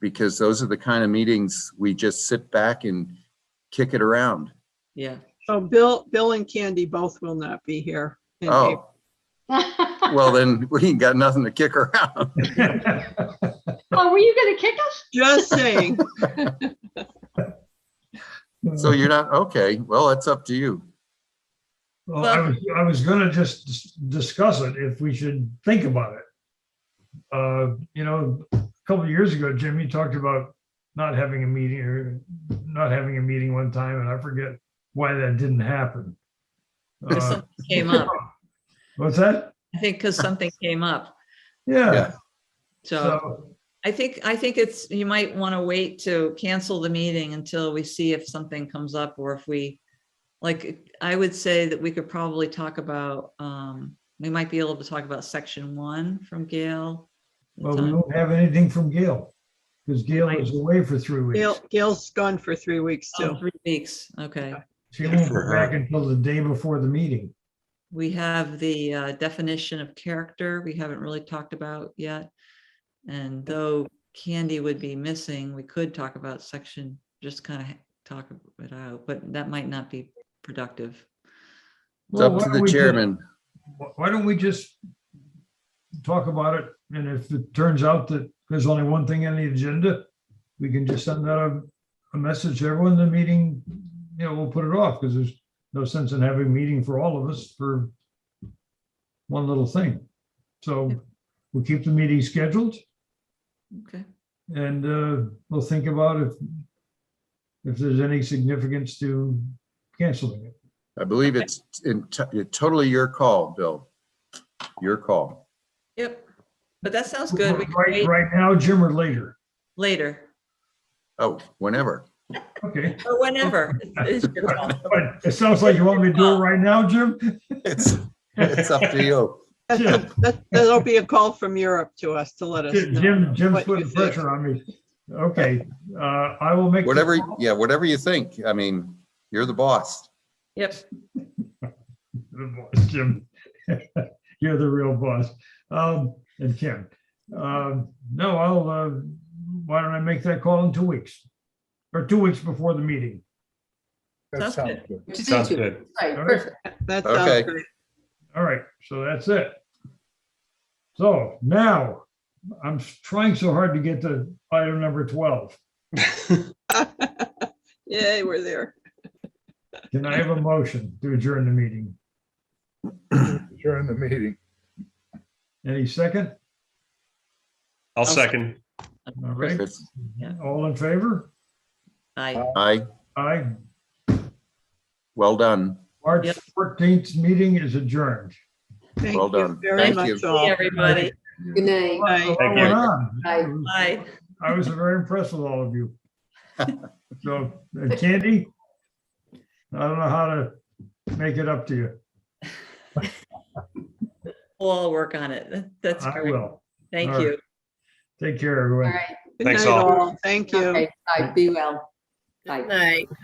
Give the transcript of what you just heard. because those are the kind of meetings we just sit back and kick it around. Yeah, So Bill, Bill and Candy both will not be here. in April. Oh, well then, we ain't got nothing to kick around. Oh, were you gonna kick us? Just saying, So you're not, okay, well, it's up to you. Well, I was, I was gonna just dis- discuss it if we should think about it. Uh, you know, a couple of years ago, Jim, you talked about not having a meeting or not having a meeting one time, and I forget why that didn't happen. because Uh, something came up. What's that? I think because something came up. Yeah, Yeah. So so, I think, I think it's, you might want to wait to cancel the meeting until we see if something comes up or if we, like, I would say that we could probably talk about, um, we might be able to talk about section one from Gail. well, we won't have anything from Gail, because Gail is away for three Gail, weeks. Gail's gone for three weeks Oh, too. Three weeks, okay. She won't For be her. back until the day before the meeting. We have the uh, definition of character we haven't really talked about yet. And though candy would be missing, we could talk about section, just kind of talk it out, but that might not be productive. It's Well, up why to don't the we just- chairman. Wh- why don't we just talk about it? And if it turns out that there's only one thing on the agenda, we can just send out a, a message to everyone in the meeting, you know, we'll put it off because there's no sense in having a meeting for all of us for one little thing. So we'll keep the meeting scheduled Okay, and uh, we'll think about if if there's any significance to canceling it. I believe it's in, t- totally your call, Bill. Your call. yep, but that sounds good. We can Right, wait right now, Jim, or later? later Oh, whenever. Okay. or whenever. It's- it's your call. But It sounds like you want me to do it right now, Jim? It's, it's up to you. That's a- that- That'll be a call from Europe to us to let us know. Oh. Jim, Jim's what you putting think. pressure on me. Okay, uh, I will make. the Whatever, call. yeah, whatever you think. I mean, you're the boss. Yep, Good boss, Jim. You're the real boss. Um, and Kim. Um, no, I'll, uh, why don't I make that call in two weeks? Or two weeks before the meeting. Sounds That sounds good. Thank Sounds you. good. Right, All right. perfect. That Okay. sounds great. All right, so that's it. So now, I'm trying so hard to get to item number twelve. Yay, we're there. Can I have a motion to adjourn the meeting? During the meeting. Any second? I'll second. All right, It's- all in favor? I, I, Aye. well done. March Yep. 14th meeting is adjourned. Thank Well you done. very Thank much you. all. everybody, Good night. Bye. Well you. done. Aye. bye. I was very impressed with all of you. So, and Candy, I don't know how to make it up to you. We'll all work on it. That's I great. will. Thank All right. you. Take care, All everyone. right. Good Thanks night all. all. Thank you. Okay, bye. Be well. Bye. Good night.